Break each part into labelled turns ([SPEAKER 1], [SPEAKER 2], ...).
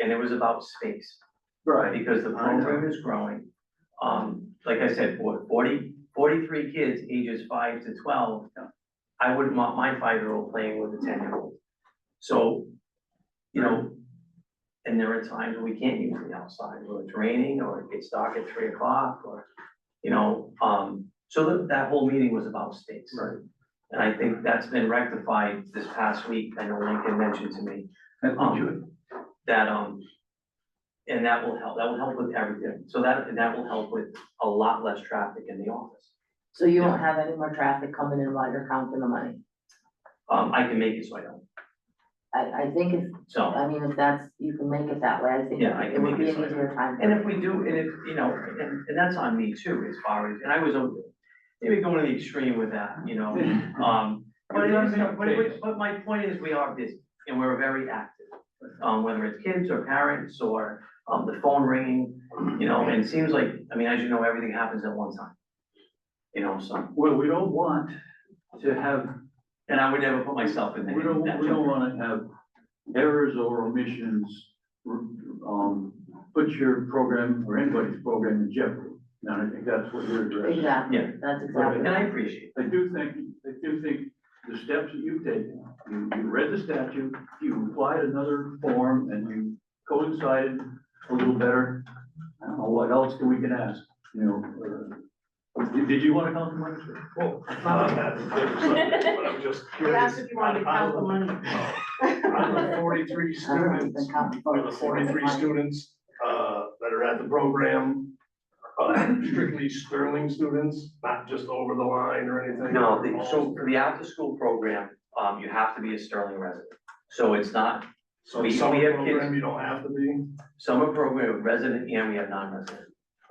[SPEAKER 1] and it was about space,
[SPEAKER 2] Right.
[SPEAKER 1] because the program is growing. Um, like I said, for- 40 43 kids ages five to twelve, I wouldn't want my five-year-old playing with a ten-year-old. So, you know, and there are times when we can't use the outside, or it's raining, or it gets dark at three o'clock, or, you know, um, so that, that whole meeting was about space.
[SPEAKER 2] Right.
[SPEAKER 1] And I think that's been rectified this past week, I know Lincoln mentioned to me, um, that, um, and that will help, that will help with everything, so that, and that will help with a lot less traffic in the office.
[SPEAKER 3] So you won't have any more traffic coming in while you're counting the money.
[SPEAKER 1] Um, I can make it so I don't,
[SPEAKER 3] I, I think if,
[SPEAKER 1] so,
[SPEAKER 3] I mean, if that's, you can make it that way, I think
[SPEAKER 1] Yeah, I
[SPEAKER 3] it
[SPEAKER 1] can
[SPEAKER 3] would
[SPEAKER 1] make
[SPEAKER 3] be
[SPEAKER 1] it
[SPEAKER 3] an
[SPEAKER 1] so.
[SPEAKER 3] easier time.
[SPEAKER 1] and if we do, and if, you know, and, and that's on me too, as far as, and I was, over- maybe going to the extreme with that, you know, um, but, it is- but, it- but my point is, we are busy, and we're very active. Um, whether it's kids or parents or, um, the phone ringing, you know, and it seems like, I mean, as you know, everything happens at one time. You know, so.
[SPEAKER 2] Well, we don't want to have,
[SPEAKER 1] And I would never put myself in that.
[SPEAKER 2] we don't,
[SPEAKER 1] that
[SPEAKER 2] we don't
[SPEAKER 1] jeopardy.
[SPEAKER 2] wanna have errors or omissions, um, put your program or anybody's program in jeopardy. And I think that's what you're addressing.
[SPEAKER 3] Exactly,
[SPEAKER 1] Yeah.
[SPEAKER 3] that's
[SPEAKER 2] wanna-
[SPEAKER 3] exactly.
[SPEAKER 1] And I appreciate,
[SPEAKER 2] I do think, I do think the steps that you've taken, you, you read the statute, you applied another form, and you coincided a little better. I don't know, what else can we can ask, you know? uh, Did, did you wanna come to my,
[SPEAKER 4] Well, it's not that, it's a different subject, but I'm just
[SPEAKER 5] You
[SPEAKER 4] curious.
[SPEAKER 5] asked if you wanted to count the money.
[SPEAKER 4] Out of the forty-three
[SPEAKER 3] I don't know,
[SPEAKER 4] students,
[SPEAKER 3] the count-
[SPEAKER 4] out of the forty-three students, uh, that are at the program, uh, strictly Sterling students, not just over the line or anything.
[SPEAKER 1] no, the- so for the after-school program, um, you have to be a Sterling resident. So it's not
[SPEAKER 4] So
[SPEAKER 1] we-
[SPEAKER 4] some
[SPEAKER 1] we have kids-
[SPEAKER 4] program you don't have to be.
[SPEAKER 1] summer program, resident and we have non-resident.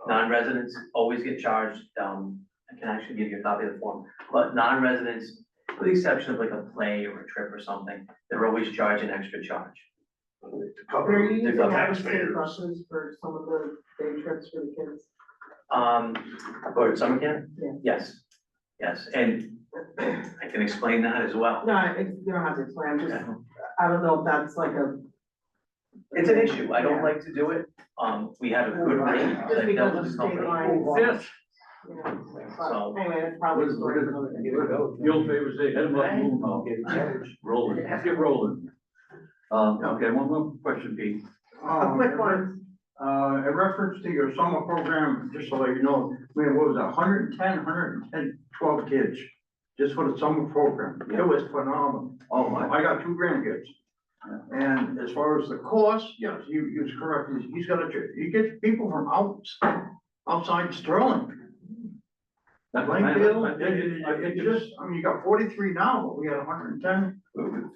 [SPEAKER 1] Non-residents always get charged, um, I can actually give you a copy of the form, but non-residents, with the exception of like a play or a trip or something, they're always charged an extra charge.
[SPEAKER 4] To
[SPEAKER 5] They're
[SPEAKER 4] cover
[SPEAKER 5] using
[SPEAKER 4] the
[SPEAKER 5] our state
[SPEAKER 4] taxpayers.
[SPEAKER 5] buses for some of the day trips for the kids.
[SPEAKER 1] Um, for summer camp?
[SPEAKER 5] Yeah.
[SPEAKER 1] Yes, yes, and I can explain that as well.
[SPEAKER 5] No, I- it's- you don't have to explain, I'm just,
[SPEAKER 1] Yeah.
[SPEAKER 5] I don't know if that's like a.
[SPEAKER 1] It's an issue, I don't
[SPEAKER 5] Yeah.
[SPEAKER 1] like to do it, um, we had a good rate,
[SPEAKER 5] Just
[SPEAKER 1] like that
[SPEAKER 5] because
[SPEAKER 1] was
[SPEAKER 5] of
[SPEAKER 1] the
[SPEAKER 5] state
[SPEAKER 1] company.
[SPEAKER 5] lines.
[SPEAKER 2] Yes.
[SPEAKER 5] Yeah.
[SPEAKER 1] So-
[SPEAKER 5] But Anyway, that's probably a story for another day.
[SPEAKER 2] The old favor say, head above, move now. Rolling, get rolling. Um, okay, one more question, Pete.
[SPEAKER 6] A quick
[SPEAKER 5] one.
[SPEAKER 6] one, Oh, uh, in reference to your summer program, just so that you know, we had, what was it, 110, 110, 12 kids, just for the summer program. It was phenomenal.
[SPEAKER 2] Oh, my.
[SPEAKER 6] I got two grandkids. And as far as the cost, yes, you, you was correct, He's- he's got a, ch- he gets people from outs, outside Sterling,
[SPEAKER 2] That's my-
[SPEAKER 6] Plainfield. It, it-
[SPEAKER 2] I
[SPEAKER 6] it
[SPEAKER 2] think it's-
[SPEAKER 6] just, I mean, you got forty-three now, but we had hundred and ten,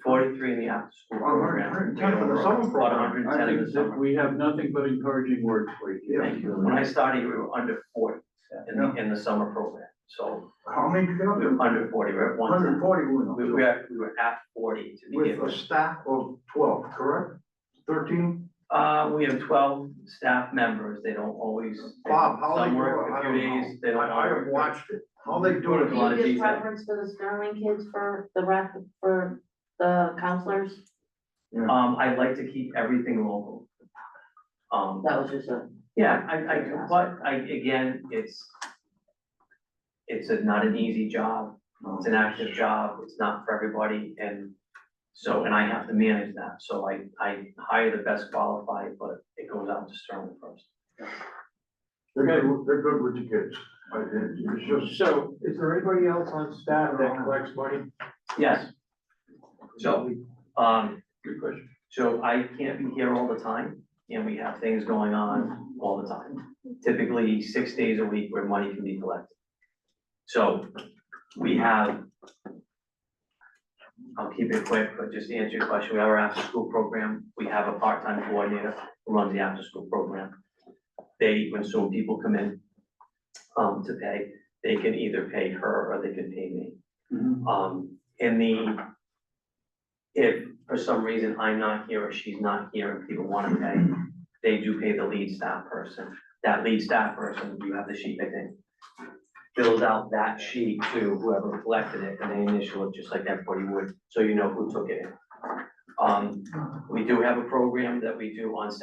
[SPEAKER 1] Forty-three in the after-school program.
[SPEAKER 6] hundred and ten for the summer
[SPEAKER 1] About
[SPEAKER 6] program.
[SPEAKER 1] hundred and
[SPEAKER 2] I
[SPEAKER 1] ten in the
[SPEAKER 2] think that
[SPEAKER 1] summer.
[SPEAKER 2] we have nothing but encouraging words for you.
[SPEAKER 1] Thank you. When I started, we were under forty in the, in the summer program, so
[SPEAKER 6] How many did you get up
[SPEAKER 1] we
[SPEAKER 6] there?
[SPEAKER 1] were under forty, we're at one
[SPEAKER 6] Hundred and
[SPEAKER 1] time.
[SPEAKER 6] forty we
[SPEAKER 1] We, we
[SPEAKER 6] went up
[SPEAKER 1] were, we were at forty to
[SPEAKER 6] to, with
[SPEAKER 1] begin
[SPEAKER 6] a
[SPEAKER 1] with.
[SPEAKER 6] staff of twelve, correct? Thirteen?
[SPEAKER 1] Uh, we have twelve staff members, they don't always.
[SPEAKER 6] Bob, how they
[SPEAKER 1] Some
[SPEAKER 6] do
[SPEAKER 1] work
[SPEAKER 6] it, I
[SPEAKER 1] a
[SPEAKER 6] don't
[SPEAKER 1] few
[SPEAKER 6] know.
[SPEAKER 1] days, they don't. all
[SPEAKER 6] I, I have
[SPEAKER 1] work.
[SPEAKER 6] watched it, how they do
[SPEAKER 1] Doing
[SPEAKER 6] it.
[SPEAKER 1] a lot of
[SPEAKER 3] Do you give
[SPEAKER 1] detail.
[SPEAKER 3] preference to the Sterling kids for the rec, for the counselors?
[SPEAKER 1] Um, I like to keep everything local. Um,
[SPEAKER 3] That was just a,
[SPEAKER 1] yeah, I, I, but I, again, it's, it's a- not an easy job, it's an active job, it's not for everybody, and so, and I have to manage that, so I, I hire the best qualified, but it goes out to Sterling first.
[SPEAKER 6] They're good, they're good with the kids. I- it- It's just,
[SPEAKER 4] So
[SPEAKER 5] Is there anybody else on staff
[SPEAKER 6] that
[SPEAKER 5] collects money?
[SPEAKER 1] Yes. So, um,
[SPEAKER 2] Good question.
[SPEAKER 1] So I can't be here all the time, and we have things going on all the time. Typically, six days a week where money can be collected. So we have, I'll keep it quick, but just to answer your question, we have our after-school program. We have a part-time coordinator who runs the after-school program. They, when so people come in um, to pay, they can either pay her or they can pay me.
[SPEAKER 2] Mm-hmm.
[SPEAKER 1] Um, in the, if for some reason I'm not here or she's not here and people wanna pay, they do pay the lead staff person. That lead staff person, you have the sheet, I think, fills out that sheet to whoever collected it and they initial it just like everybody would, so you know who took it in. Um, we do have a program that we do on Saturday